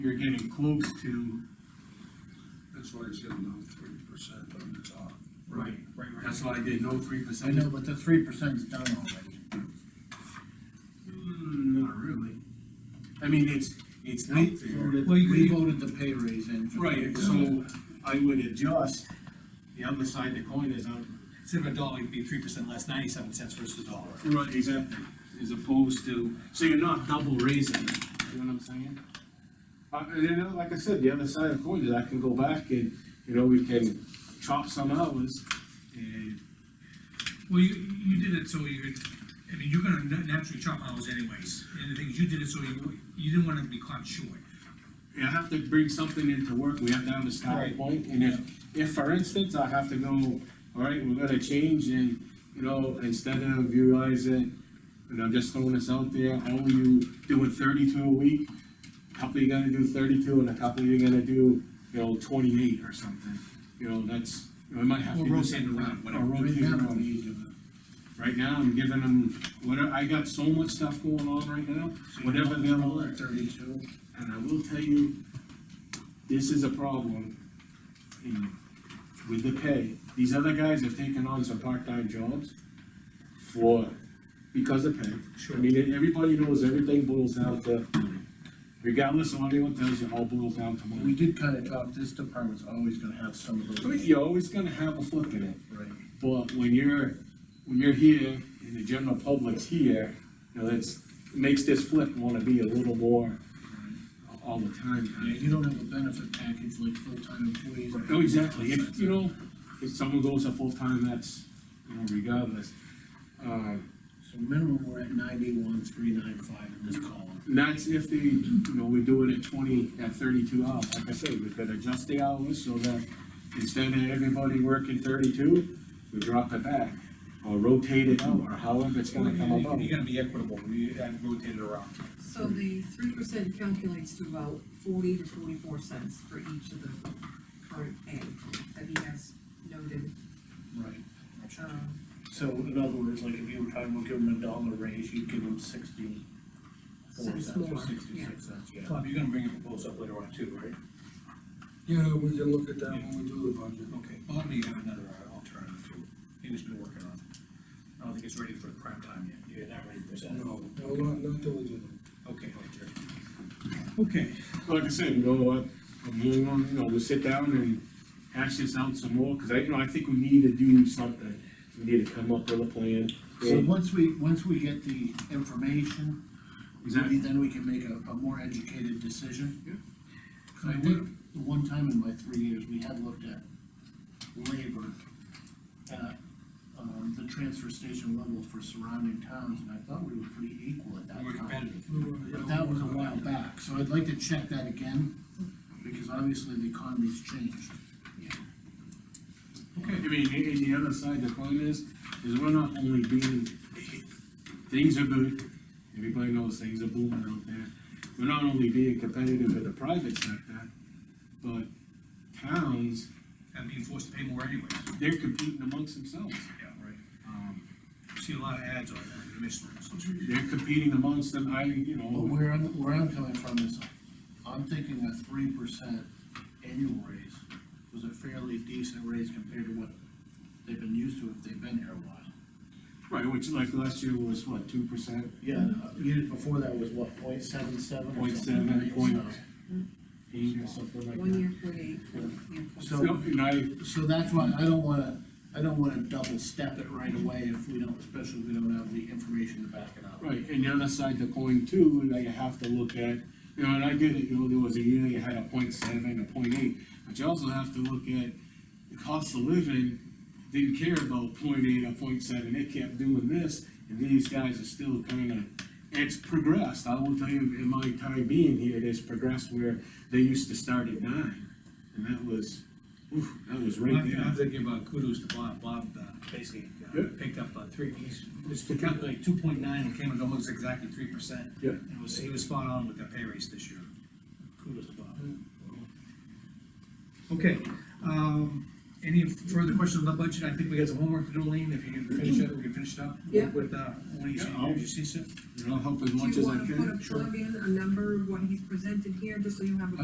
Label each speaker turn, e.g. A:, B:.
A: you're getting close to.
B: That's why I said no three percent on the top.
A: Right. That's why I did no three
C: I
A: percent.
C: know, but the three percent's done already.
A: Hmm, not really. I mean, it's, it's out there.
C: Voted-
D: Well, you
C: We
D: could-
C: voted the pay raise in. for the-
A: Right, so I would adjust, the other side of the coin is out.
D: Instead of a dollar, it'd be three percent less, ninety-seven cents versus a dollar.
A: Right, exactly. As opposed to, so you're not double raising it, you know what I'm saying?
B: Uh, and you know, like I said, the other side of the coin is I can go back and, you know, we can chop some hours and.
D: Well, you, you did it so you could, I mean, you're gonna na- naturally chop hours anyways, and the thing is, you did it so you, you didn't wanna be caught short.
B: I have to bring something into work, we have to have a starting
D: Right.
B: point, and if, if for instance, I have to go, all right, we're gonna change and, you know, instead of utilizing, and I'm just throwing this out there, how are you doing thirty-two a week? A Couple you're gonna do thirty-two and a couple you're gonna do, you know, twenty-eight or something, you know, that's, you know, I might have to.
A: Or
B: do
A: rotate
B: something.
A: around,
B: Or
A: whatever.
C: Right
B: rotate
C: now,
B: around.
C: we need to-
B: Right now, I'm giving them, whatever, I got so much stuff going on right now,
C: so you
B: whatever
C: want
B: they'll
C: to roll
B: alert.
C: at Thirty-two.
B: And I will tell you, this is a problem in- with the pay. These other guys have taken on some part-time jobs for, because of pay. I
D: Sure.
B: mean, everybody knows everything boils down to, money. regardless of what anyone tells you, it all boils down to
C: We
B: money.
C: did kind of talk, this department's always gonna have some of
B: I mean,
C: those.
B: You're always gonna have a flip in it,
C: Right.
B: but when you're, when you're here and the general public's here, you know, that's, makes this flip wanna be a little more all the time.
C: Yeah, you don't have a benefit package like full-time employees.
B: Oh, exactly, if, you know, if someone goes to full-time, that's, you know, regardless. Um,
C: So minimum, we're at ninety-one, three nine five in this column.
B: and that's if they, you know, we do it at twenty, at thirty-two hours, like I said, we could adjust the hours so that instead of everybody working thirty-two, we drop it back, or rotate it out, or however it's gonna come about.
D: You uh, gotta be equitable, we had rotated around.
E: So the three percent calculates to about forty to forty-four cents for each of the current pay that he has noted,
C: Right.
E: um,
C: So in other words, like if you were talking about giving them a dollar raise, you'd give them sixty-four
E: Cents
C: cents or
E: more,
C: sixty-six cents, yeah.
D: Bob, you're gonna bring a proposal up later on too, right?
F: Yeah, we can look at that when we do the budget.
D: Okay, Bob may have another uh, alternative too, he's been working on it. I don't think it's ready for the prime time yet, you're not ready for that.
F: No, no, not, not till we do that.
D: Okay, Jerry. Okay,
B: Like I said, you know what, I'm moving on, you know, we'll sit down and hash this out some more, cause I, you know, I think we need to do something. We need to come up with a plan.
C: So once we, once we get the information,
B: Exactly.
C: then we can make a, a more educated decision.
B: Yeah.
C: 'Cause I did, the one time in my three years, we had looked at labor at, um, the transfer station level for surrounding towns, and I thought we were pretty equal at that
D: we're
C: time.
D: competitive.
F: We were-
C: But that was a while back, so I'd like to check that again, because obviously the economy's changed.
B: Okay, I mean, and and the other side, the point is, is we're not only being, things are good, everybody knows things are booming out there. We're not only being competitive in the private sector, but towns,
D: I'm being forced to pay more anyways.
B: they're competing amongst themselves.
D: Yeah, right.
B: Um,
D: See a lot of ads on uh, that, commission.
B: They're competing amongst them, I, you
C: But
B: know,
C: where I'm, where I'm coming from is, I'm thinking a three percent annual raise was a fairly decent raise compared to what they've been used to if they've been here a while.
B: right, which like last year was what, two percent?
C: Yeah, and, uh, years before that was what, point seven seven or
B: Point
C: something?
B: seven,
C: right?
B: point eight or something like
E: one
B: that.
E: year point eight, one year point
C: So-
B: No, And I,
C: So that's why I don't wanna, I don't wanna double step it right away if we don't, especially if we don't have the information to back it up.
B: Right, and the other side of the coin too, that you have to look at, you know, and I get it, you know, there was a year you had a point seven, a point eight, but you also have to look at the cost of living, didn't care about point eight or point seven, they kept doing this, and these guys are still kinda, it's progressed, I will tell you, in my time being here, it has progressed where they used to start at nine, and that was, oof, that was
D: I
B: right
D: have to- I have
B: there.
D: to give uh, kudos to Bob, Bob uh, basically uh,
B: Yeah.
D: picked up uh, three, he's, was to calculate two point nine, and came to almost exactly three percent.
B: Yeah.
D: And was, he was spot on with the pay raise this year. Kudos to Bob. Okay, um, any further questions on the budget? I think we got some homework to do, Lean, if you can finish it, we can finish it up.
E: Yeah.
D: With, uh, when you see,
B: Yeah, I'll-
D: you see it?
B: and I'll help as
E: Do
B: much
E: you
B: as I
E: wanna
B: can.
E: put a
B: Sure.
E: plug in, a number, what he's presented here, just so you have a